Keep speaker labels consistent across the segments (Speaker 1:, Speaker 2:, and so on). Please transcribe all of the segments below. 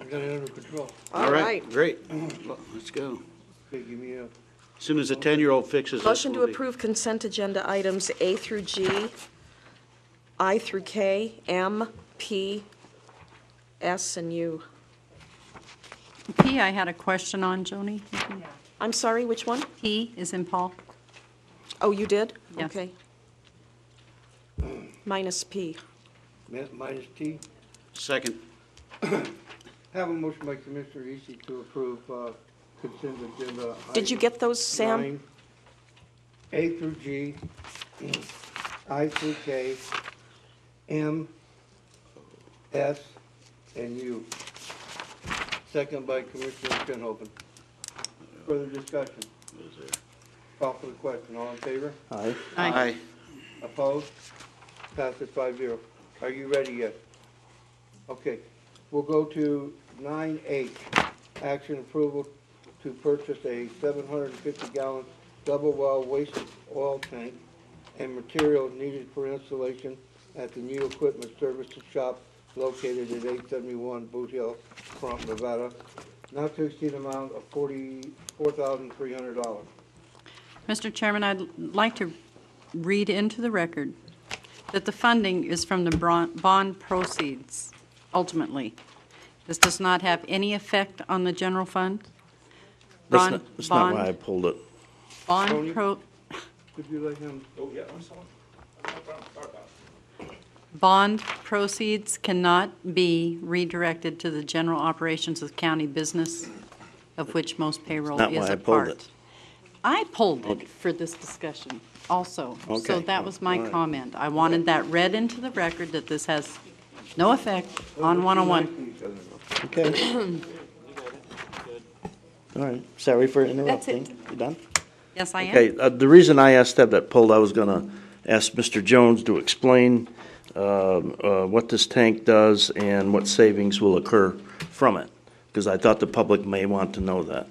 Speaker 1: I've got it under control.
Speaker 2: All right,
Speaker 3: Great. Let's go.
Speaker 1: Okay, give me a,
Speaker 3: As Soon as the 10-year-old fixes this.
Speaker 2: Motion to
Speaker 3: we'll be-
Speaker 2: approve consent agenda items A through G, I through K, M, P, S, and U.
Speaker 4: P, I had a question on, Joni.
Speaker 2: I'm sorry, which one?
Speaker 4: P is in Paul.
Speaker 2: Oh, you did?
Speaker 4: Yeah.
Speaker 2: Okay. Minus P.
Speaker 1: mi- minus T.
Speaker 3: Second.
Speaker 1: Have a motion by Commissioner Eastly to approve uh, consent agenda.
Speaker 2: Did you
Speaker 1: item
Speaker 2: get those, Sam?
Speaker 1: nine, A through G, I through K, M, S, and U. Second by Commissioner Shinhopin. Further discussion?
Speaker 3: What is there?
Speaker 1: Call for the question. All in favor?
Speaker 5: Aye.
Speaker 3: Aye.
Speaker 1: Opposed? Passes five zero. Are you ready yet? Okay, we'll go to nine H, action approval to purchase a seven hundred and fifty gallon double well waste oil tank and materials needed for installation at the new equipment services shop located at eight seventy-one Boot Hill, Crump, Nevada, not to exceed amount of forty-four thousand three hundred dollars.
Speaker 4: Mr. Chairman, I'd like to read into the record that the funding is from the bron- bond proceeds, ultimately. This does not have any effect on the general fund.
Speaker 5: That's
Speaker 4: Bond-
Speaker 5: not, that's not why I
Speaker 4: bond-
Speaker 5: pulled it.
Speaker 4: Bond pro,
Speaker 1: Could you let him?
Speaker 4: bond proceeds cannot be redirected to the general operations of county business, of which most payroll
Speaker 5: That's not
Speaker 4: is
Speaker 5: why I
Speaker 4: a
Speaker 5: pulled
Speaker 4: part.
Speaker 5: it.
Speaker 4: I pulled it for this discussion also. So
Speaker 5: Okay.
Speaker 4: that was
Speaker 5: All
Speaker 4: my
Speaker 5: right.
Speaker 4: comment. I wanted that read into the record that this has no effect on 101.
Speaker 5: Okay. All right, sorry for interrupting. You done?
Speaker 4: Yes, I am.
Speaker 5: Okay, uh, the reason I asked to have that pulled, I was gonna ask Mr. Jones to explain um, uh, what this tank does and what savings will occur from it, because I thought the public may want to know that.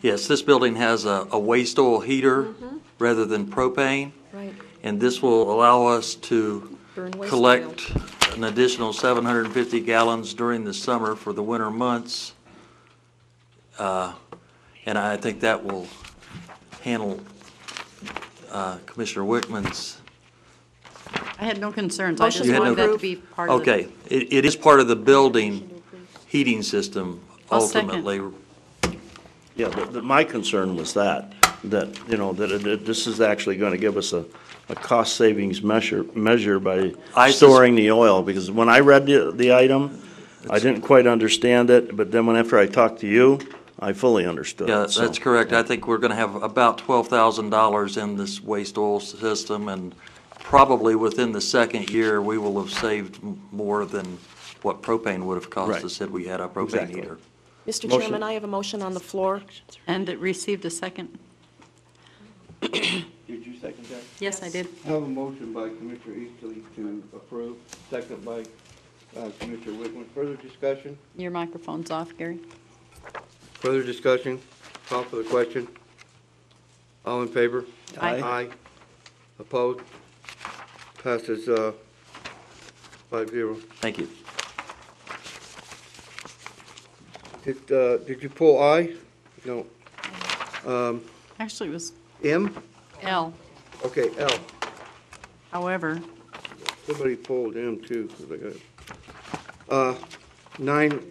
Speaker 6: Yes, this building has a, a waste oil heater
Speaker 4: Mm-hmm.
Speaker 6: rather than propane,
Speaker 2: Right.
Speaker 6: and this will allow us to
Speaker 2: Burn waste
Speaker 6: collect an additional 750 gallons during the summer for the winter months. Uh, And I think that will handle uh, Commissioner Wickman's.
Speaker 4: I had no concerns. I just
Speaker 2: Motion to
Speaker 4: wanted that to
Speaker 2: approve.
Speaker 4: be part of the.
Speaker 6: Okay, it, it is part of the building heating system
Speaker 4: I'll second.
Speaker 6: ultimately.
Speaker 5: Yeah, but, but my concern was that, that, you know, that, it- that this is actually gonna give us a, a cost savings measure, measure by
Speaker 6: I sus-
Speaker 5: storing the oil, because when I read the, the item, I didn't quite understand it, but then when, after I talked to you, I fully understood.
Speaker 6: Yeah,
Speaker 5: so-
Speaker 6: that's correct. I think we're going to have about $12,000 in this waste oil system, and probably within the second year, we will have saved m- more than what propane would have cost
Speaker 5: Right.
Speaker 6: us had we had a propane
Speaker 5: Exactly.
Speaker 6: heater.
Speaker 2: Mr.
Speaker 5: Motion.
Speaker 2: Chairman, I have a motion on the floor.
Speaker 4: And it received a second.
Speaker 1: Did you second that?
Speaker 4: Yes, I did.
Speaker 1: Have a motion by Commissioner Eastley to approve, second by uh, Commissioner Wickman. Further discussion?
Speaker 4: Your microphone's off, Gary.
Speaker 1: Further discussion? Call for the question. All in favor?
Speaker 4: Aye.
Speaker 1: Aye. Opposed? Passes uh, five zero.
Speaker 6: Thank you.
Speaker 1: Did uh, did you pull I? No. Um,
Speaker 4: Actually, it was
Speaker 1: M?
Speaker 4: L.
Speaker 1: Okay, L.
Speaker 4: However,
Speaker 1: Somebody pulled M too, 'cause I got it. Uh, Nine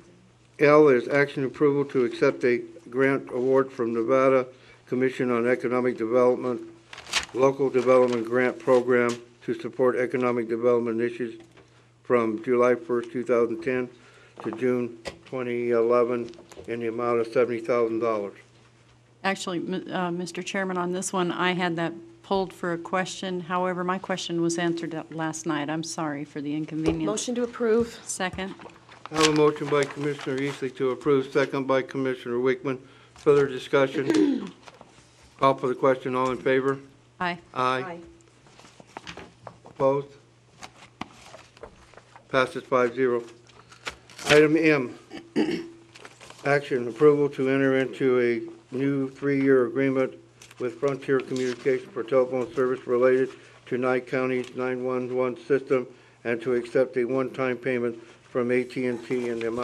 Speaker 1: L is action approval to accept a grant award from Nevada Commission on Economic Development, Local Development Grant Program to support economic development issues from July first, two thousand ten to June twenty eleven in the amount of seventy thousand dollars.
Speaker 4: Actually, m- uh, Mr. Chairman, on this one, I had that pulled for a question. However, my question was answered at- last night. I'm sorry for the inconvenience.
Speaker 2: Motion to approve.
Speaker 4: Second.
Speaker 1: I have a motion by Commissioner Eastley to approve, second by Commissioner Wickman. Further discussion? Call for the question, all in favor?
Speaker 4: Aye.
Speaker 1: Aye. Opposed? Passes five zero. Item M, action approval to enter into a new three-year agreement with Frontier Communications for telephone service related to Nye County's nine-one-one system and to accept a one-time payment from at and T in the amount